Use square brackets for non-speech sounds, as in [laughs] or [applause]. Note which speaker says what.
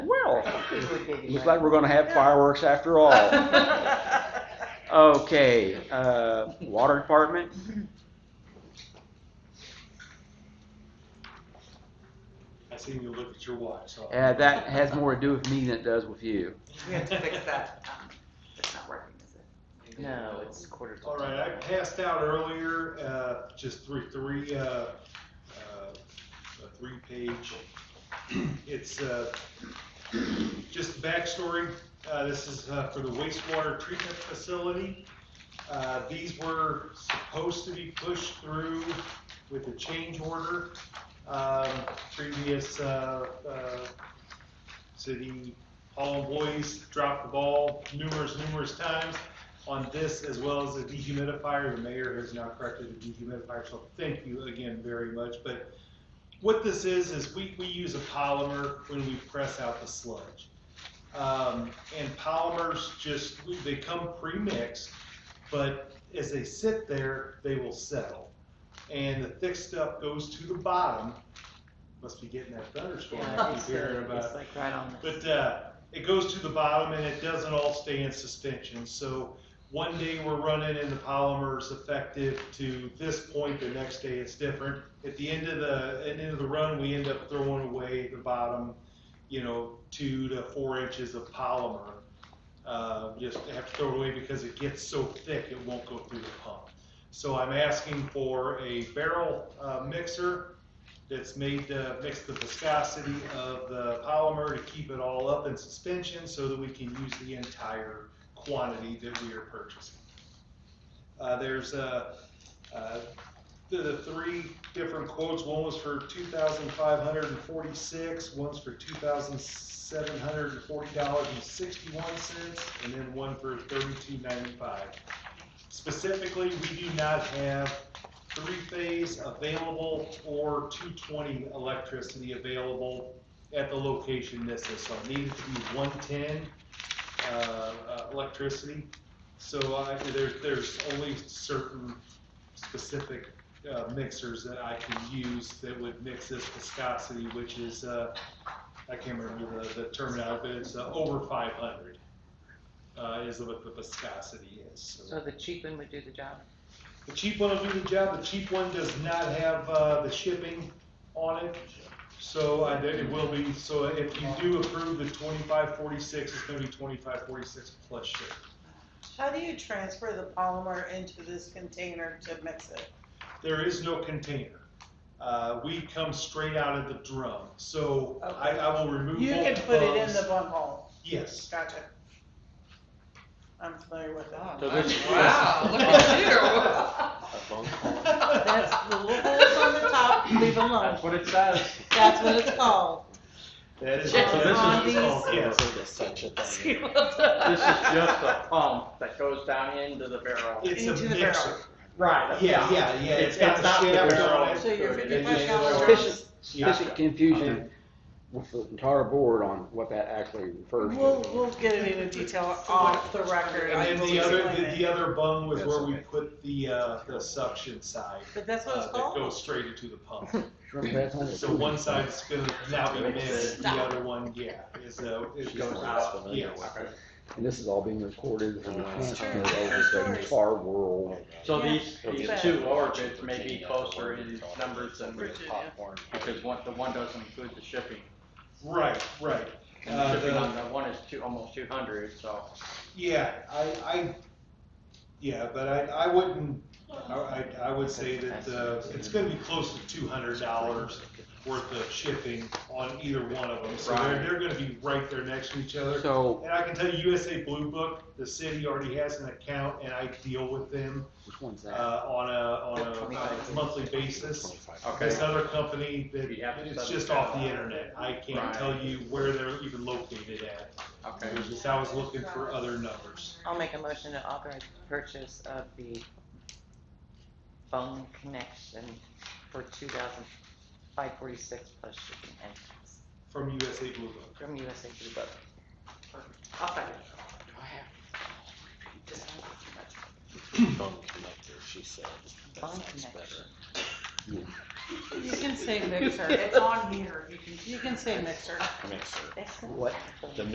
Speaker 1: Looks like we're
Speaker 2: [laughs]
Speaker 1: gonna have fireworks after all.
Speaker 3: [laughs]
Speaker 1: Okay, uh, water department?
Speaker 4: I seen you look at your watch, so.
Speaker 1: Uh, that has more to do with me than it does with you.
Speaker 2: We have to fix that. um, It's not working, is it?
Speaker 3: No, it's quarter to.
Speaker 4: All right, I passed out earlier, uh, just three, three, uh, uh, a three-page. It's, uh, just backstory, uh, this is, uh, for the wastewater treatment facility. Uh, these were supposed to be pushed through with a change order. Um, previous, uh, uh, city hall employees dropped the ball numerous, numerous times on this as well as the dehumidifier. The mayor has now corrected the dehumidifier, so thank you again very much. But what this is, is we, we use a polymer when we press out the sludge. Um, and polymers just, they come pre-mixed, but as they sit there, they will settle. And the thick stuff goes to the bottom. Must be getting that thunderstorm I keep hearing about.
Speaker 3: It's like right on
Speaker 4: But uh, it goes to the bottom and it doesn't all stay in suspension. So one day we're running and the polymer's effective to this point, the next day it's different. At the end of the end of the run, we end up throwing away the bottom, you know, two to four inches of polymer. Uh, just have to throw it away because it gets so thick it won't go through the pump. So I'm asking for a barrel uh, mixer that's made to mix the viscosity of the polymer to keep it all up in suspension so that we can use the entire quantity that we are purchasing. Uh, there's uh, uh, the, the three different quotes. One was for 2,546, one's for $2,740.61, and then one for 32.95. Specifically, we do not have three-phase available or 220 electricity available at the location this is. So it needed to be 110 uh, uh, electricity. So I, there, there's only certain specific uh, mixers that I can use that would mix this viscosity, which is, uh, I can't remember the, the terminology, but it's uh, over 500 uh, is what the viscosity is.
Speaker 3: this. So the cheap one would do the job.
Speaker 4: The cheap one will do the job, the cheap one does not have, uh, the shipping on it, so I, think it will be, so if you do approve the twenty-five forty-six, it's gonna be twenty-five forty-six plus shipping.
Speaker 5: How do you transfer the polymer into this container to mix it?
Speaker 4: There is no container, uh, we come straight out of the drum, so I, I will remove all the
Speaker 5: You can put it in
Speaker 4: bugs.
Speaker 5: the bunghole.
Speaker 4: Yes,
Speaker 5: Gotcha. I'm familiar with that.
Speaker 1: So this-
Speaker 2: Wow,
Speaker 6: [laughs]
Speaker 2: look at
Speaker 5: [laughs] That's the little holes on the
Speaker 2: [laughs]
Speaker 5: top, leave alone.
Speaker 6: what it says.
Speaker 5: That's what it's
Speaker 4: [laughs]
Speaker 5: called.
Speaker 4: that is.
Speaker 3: Just
Speaker 4: so this is-
Speaker 5: on these-
Speaker 4: oh, Yes,
Speaker 6: This is just a pump that goes down into the barrel.
Speaker 4: it's
Speaker 5: Into
Speaker 4: a
Speaker 5: the barrel.
Speaker 4: mixer.
Speaker 6: Right.
Speaker 4: Yeah, yeah, yeah, it's got the shaft on it.
Speaker 5: So your
Speaker 1: Sufficient-
Speaker 5: $55
Speaker 1: Sufficient confusion with the entire board on what that actually refers
Speaker 5: We'll,
Speaker 1: to.
Speaker 5: we'll get it in detail off the record. I
Speaker 4: And then
Speaker 5: will
Speaker 4: the other,
Speaker 5: explain
Speaker 4: the,
Speaker 5: it.
Speaker 4: the other bung was
Speaker 1: That's
Speaker 4: where we
Speaker 1: okay.
Speaker 4: put the, uh, the suction side.
Speaker 5: But that's what
Speaker 4: uh,
Speaker 5: it's
Speaker 4: That
Speaker 5: called?
Speaker 4: goes straight into the pump.
Speaker 1: Remember that one?
Speaker 4: So one side is gonna now be mixed, the
Speaker 5: Stop.
Speaker 4: other one, yeah, is, uh, it
Speaker 6: She's
Speaker 4: goes
Speaker 6: not
Speaker 4: out,
Speaker 6: familiar
Speaker 4: yes.
Speaker 6: with it.
Speaker 1: And this is all being recorded and transmitted over
Speaker 5: Sure.
Speaker 1: to the far world.
Speaker 6: So
Speaker 5: Yeah.
Speaker 6: these, these
Speaker 5: But-
Speaker 6: two orbits may be closer in numbers than, we-
Speaker 5: Virginia.
Speaker 6: because one, the one doesn't include the shipping.
Speaker 4: Right, right.
Speaker 6: And
Speaker 4: Uh,
Speaker 6: the shipping
Speaker 4: the-
Speaker 6: on that one is two, almost two hundred, so.
Speaker 4: Yeah, I, I, yeah, but I, I wouldn't, I, I I would say that, uh, it's gonna be close to two hundred dollars worth of shipping on either one of them. So they're,
Speaker 6: Right.
Speaker 4: they're gonna be right there next to each other.
Speaker 1: So,
Speaker 4: And I can tell you USA Blue Book, the city already has an account and I deal with them,
Speaker 1: which one's
Speaker 4: uh,
Speaker 1: that?
Speaker 4: on a, on a uh, monthly basis. This other company that,
Speaker 6: You have to
Speaker 4: it's
Speaker 6: set
Speaker 4: just
Speaker 6: it
Speaker 4: off the
Speaker 6: up.
Speaker 4: internet. I can't
Speaker 6: Right.
Speaker 4: tell you where they're even located at.
Speaker 6: Okay.
Speaker 4: It was just, I was looking for other numbers.
Speaker 3: I'll make a motion to authorize purchase of the phone connection for two thousand five forty-six plus shipping and tax
Speaker 4: From USA Blue Book.
Speaker 3: from USA Blue Book. I'll second. Just don't talk too much.
Speaker 7: phone connector, she said. That
Speaker 3: Phone
Speaker 7: sounds
Speaker 3: connection.
Speaker 5: You can say mixer, it's on here, you can, you can say mixer.
Speaker 7: better. Mixer.
Speaker 3: That's-
Speaker 1: What?